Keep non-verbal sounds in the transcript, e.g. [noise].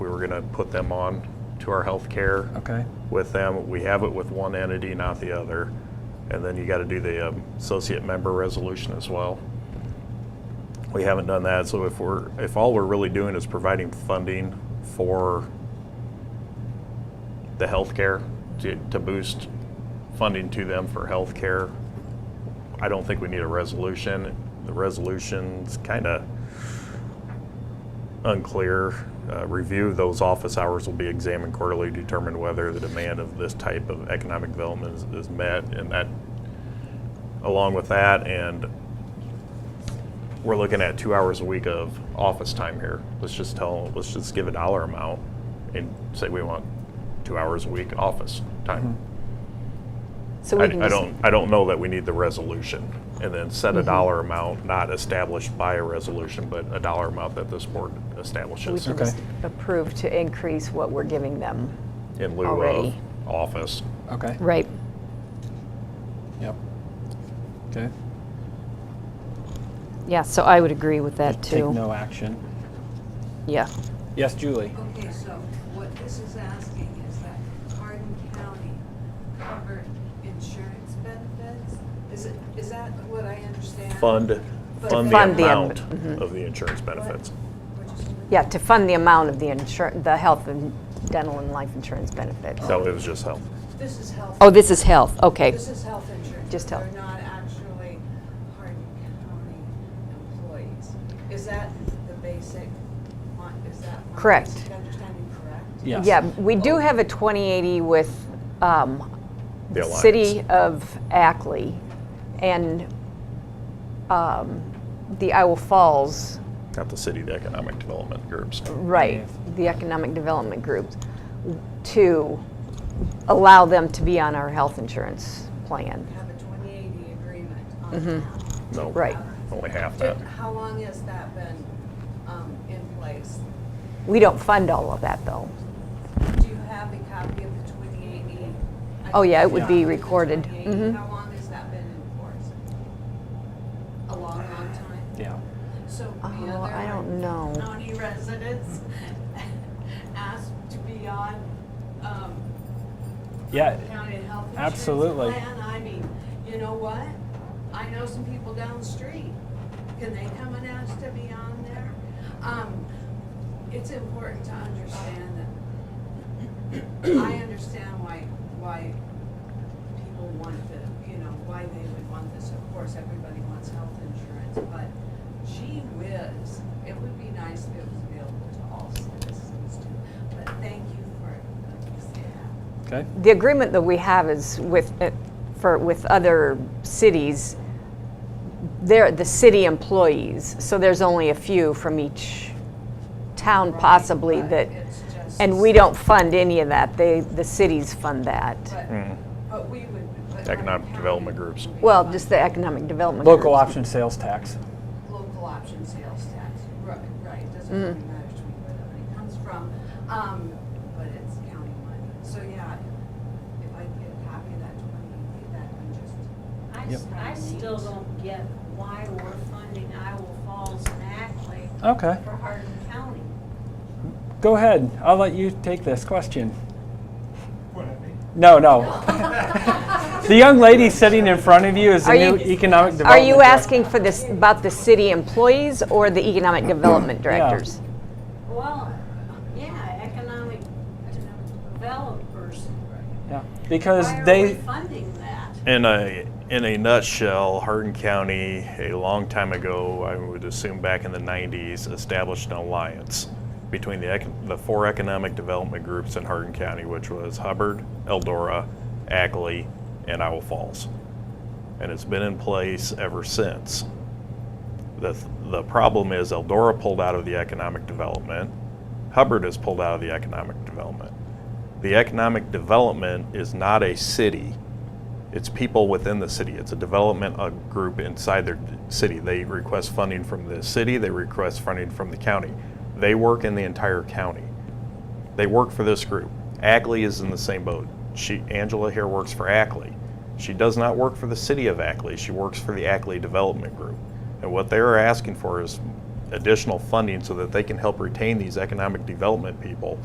we're gonna put them on to our healthcare. Okay. With them, we have it with one entity, not the other. And then you gotta do the um, associate member resolution as well. We haven't done that, so if we're, if all we're really doing is providing funding for the healthcare, to, to boost funding to them for healthcare, I don't think we need a resolution. The resolution's kind of unclear. Uh, Review those office hours will be examined quarterly, to determine whether the demand of this type of economic development is- is met. And that, along with that, and we're looking at two hours a week of office time here. Let's just tell, let's just give a dollar amount and say we want two hours a week office time. So I, we can I just. don't, I don't know that we need the resolution and then set a dollar amount, not established by a resolution, but a dollar amount that this board We establishes can just approve to increase what we're giving them. in lieu of already. office. Okay. Right. Yep. Okay. Yeah, so I would agree with that Take no action. Yeah. Yes, Julie. Okay, so what this is asking is that Hardin County covered insurance benefits? Is it, is that what I understand? Fund, fund the Fund the amount am- of the insurance benefits. Which is- Yeah, to fund the amount of the insur, the health and dental and life insurance benefits. No, it was just health. This is health. Oh, this is health, okay. This is health insurance. Just health. They're not actually Hardin County employees. Is that the basic, mon- is that my Correct. basic understanding correct? Yes. Yeah, we do have a 2080 with um, The alliance. City of Ackley and um, the Iowa Falls, Not the city, the economic development groups. right, the Economic Development Group, to allow them to be on our health insurance plan. Have a 2080 agreement on that. No. Mm-hmm. Right. Only half that. Did- How long has that been um, in place? We don't fund all of that, though. Do you have a copy of the 2080? Oh, yeah, it would I be think the recorded. 2080. Mhm. How long has that been in force? A long, long time? Yeah. So the Oh, other I don't know. County residents [laughs] asked to be on um, Yeah. county health insurance Absolutely. plan? I mean, you know what? I know some people down the street. Can they come and ask to be on there? Um, It's important to understand that, [coughs] I understand why, why people want the, you know, why they would want this. Of course, everybody wants health insurance, but gee whiz, it would be nice if it was available to all citizens too. But thank you for, that. Okay. The agreement that we have is with, uh, for, with other cities, they're the city employees, so there's only a few from each town possibly Right, that, but it's just- and we don't fund any of that, they, the cities fund that. But but we would. but Economic our development county groups. would be Well, fine. just the economic development. Local groups. option sales tax. Local option sales tax, right, right, it doesn't really Mm-hmm. matter to me where the money comes from, um, but it's county money. So, yeah, if I get a copy of that twenty, that can just. I, Yep. s- I still don't get why we're funding Iowa Falls and Ackley Okay. for Hardin County. Go ahead. I'll let you take this question. No, no. the young lady sitting in front of you is the Are new you- economic Are development. you director. asking for this, about the city employees or the economic development directors? Well, yeah, economic developers. Yeah. Because Why are we they. funding that? In a, in a nutshell, Hardin County, a long time ago, I would assume back in the 90s, established an alliance between the, ec- the four economic development groups in Hardin County, which was Hubbard, Eldora, Ackley, and Owl Falls. And it's been in place ever since. The, th- the problem is Eldora pulled out of the economic development. Hubbard has pulled out of the economic development. The economic development is not a city it's people within the city. It's a development uh, group inside their d- city. They request funding from the city, they request funding from the county. They work in the entire county. They work for this group. Ackley is in the same boat. She, Angela here works for Ackley. She does not work for the city of Ackley, she works for the Ackley Development Group. And what they're asking for is additional funding so that they can help retain these economic development people